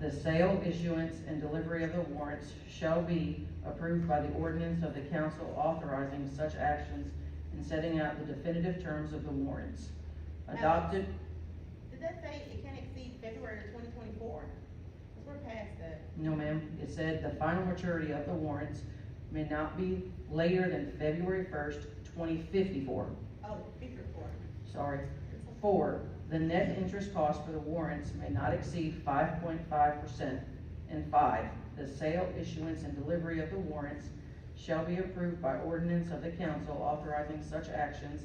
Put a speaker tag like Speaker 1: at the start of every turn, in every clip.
Speaker 1: The sale, issuance, and delivery of the warrants shall be approved by the ordinance of the council authorizing such actions and setting out the definitive terms of the warrants. Adopted,
Speaker 2: Did that say it can't exceed February of twenty twenty-four? Cause we're past that.
Speaker 1: no ma'am, it said the final maturity of the warrants may not be later than February first, twenty fifty-four.
Speaker 2: Oh, figure four.
Speaker 1: Sorry, Four, the net interest cost for the warrants may not exceed five point five percent. And five, the sale, issuance, and delivery of the warrants shall be approved by ordinance of the council authorizing such actions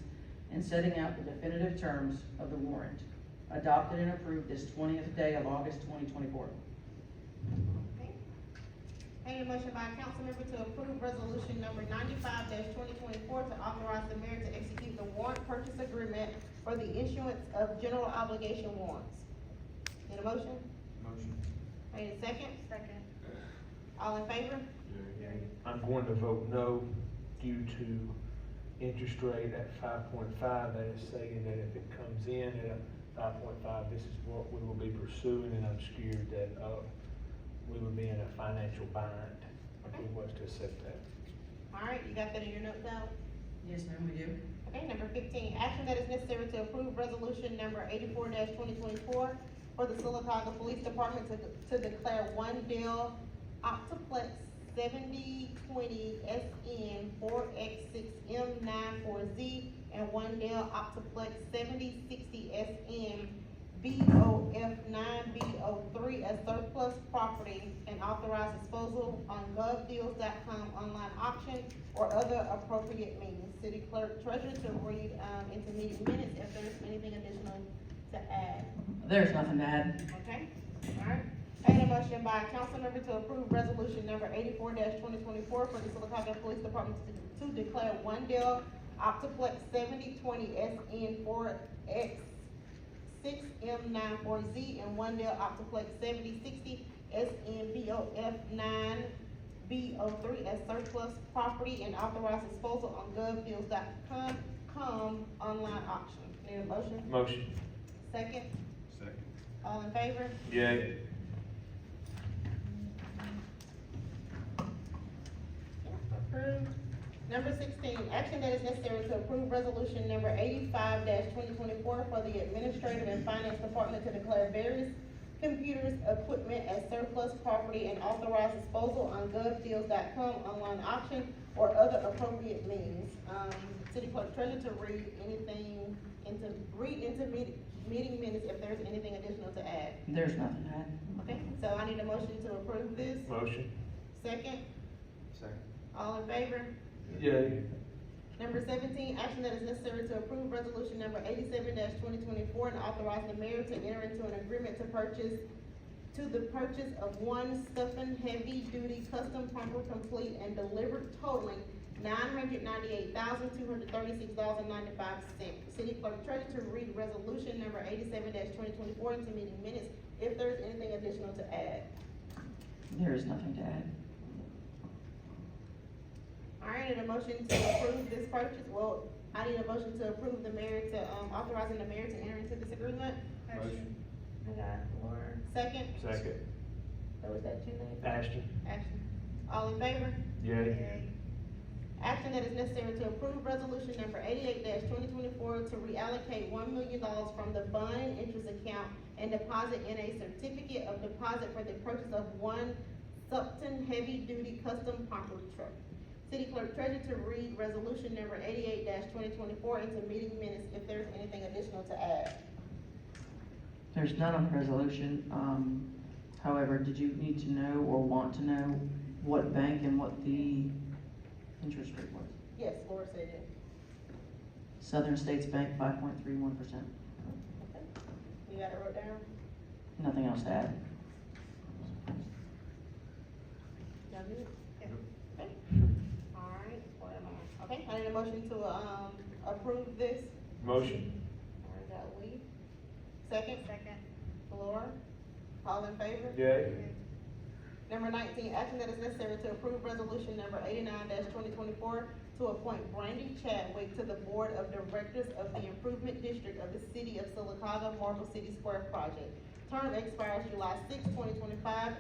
Speaker 1: and setting out the definitive terms of the warrant, adopted and approved this twentieth day of August twenty twenty-four.
Speaker 2: Okay. Need a motion by a council member to approve resolution number ninety-five twenty twenty-four to authorize the mayor to execute the warrant purchase agreement for the issuance of general obligation warrants. Need a motion?
Speaker 3: Motion.
Speaker 2: Need a second? Second. All in favor?
Speaker 4: I'm going to vote no due to interest rate at five point five, that is saying that if it comes in at five point five, this is what we will be pursuing, and I'm scared that, uh, we would be in a financial bind if we was to accept that.
Speaker 2: All right, you got that in your notes now?
Speaker 1: Yes, ma'am, we do.
Speaker 2: Okay, number fifteen, action that is necessary to approve resolution number eighty-four twenty twenty-four for the Silicaca Police Department to, to declare one Dell Optiplex seventy twenty SN four X six M nine four Z and one Dell Optiplex seventy sixty SN BOF nine BO three as surplus property and authorize disposal on govdeals.com online auction or other appropriate means. City clerk treasurer to read, um, into meeting minutes if there's anything additional to add,
Speaker 1: There's nothing to add.
Speaker 2: okay? Alright, I had a motion by council member to approve resolution number eighty-four twenty twenty-four for the Silicaca Police Department to, to declare one Dell Optiplex seventy twenty SN four X six M nine four Z and one Dell Optiplex seventy sixty SNBOF nine B O three as surplus property and authorize disposal on govdeals.com, com online auction. Need a motion?
Speaker 4: Motion.
Speaker 2: Second,
Speaker 3: Second.
Speaker 2: all in favor?
Speaker 4: Yay.
Speaker 2: Approved. Number sixteen, action that is necessary to approve resolution number eighty-five twenty twenty-four for the administrative and finance department to declare various computers, equipment as surplus property and authorize disposal on govdeals.com online auction or other appropriate means. Um, city clerk treasurer to read anything into, read into meeting, meeting minutes if there's anything additional to add.
Speaker 1: There's nothing to add.
Speaker 2: Okay, so I need a motion to approve this.
Speaker 4: Motion.
Speaker 2: Second,
Speaker 3: Second.
Speaker 2: all in favor?
Speaker 4: Yay.
Speaker 2: Number seventeen, action that is necessary to approve resolution number eighty-seven twenty twenty-four and authorize the mayor to enter into an agreement to purchase, to the purchase of one Stuffin heavy-duty custom pumper complete and delivered totaling nine hundred ninety-eight thousand, two hundred thirty-six dollars ninety-five cents. City clerk treasurer to read resolution number eighty-seven twenty twenty-four into meeting minutes if there's anything additional to add.
Speaker 1: There is nothing to add.
Speaker 2: All right, and a motion to approve this purchase, well, I need a motion to approve the mayor to, um, authorizing the mayor to enter into this agreement.
Speaker 3: Motion.
Speaker 2: I got Laura. Second,
Speaker 4: Second.
Speaker 2: or was that you, Nate?
Speaker 4: Ashton.
Speaker 2: Action. All in favor?
Speaker 4: Yay.
Speaker 2: Action that is necessary to approve resolution number eighty-eight twenty twenty-four to reallocate one million dollars from the bond interest account and deposit in a certificate of deposit for the purchase of one Supton heavy-duty custom pumper truck. City clerk treasurer to read resolution number eighty-eight twenty twenty-four into meeting minutes if there's anything additional to add.
Speaker 1: There's none on the resolution, um, however, did you need to know or want to know what bank and what the interest rate was?
Speaker 2: Yes, Laura said it.
Speaker 1: Southern States Bank, five point three one percent,
Speaker 2: You got it wrote down?
Speaker 1: nothing else to add.
Speaker 2: Y'all good? Okay. Alright, what am I, okay, I need a motion to, um, approve this,
Speaker 4: Motion.
Speaker 2: or is that we? Second? Second. Laura, all in favor?
Speaker 4: Yay.
Speaker 2: Number nineteen, action that is necessary to approve resolution number eighty-nine twenty twenty-four to appoint Brandy Chadwick to the Board of Directors of the Improvement District of the City of Silicaca Marble City Square Project. Term expires July sixth, twenty twenty-five,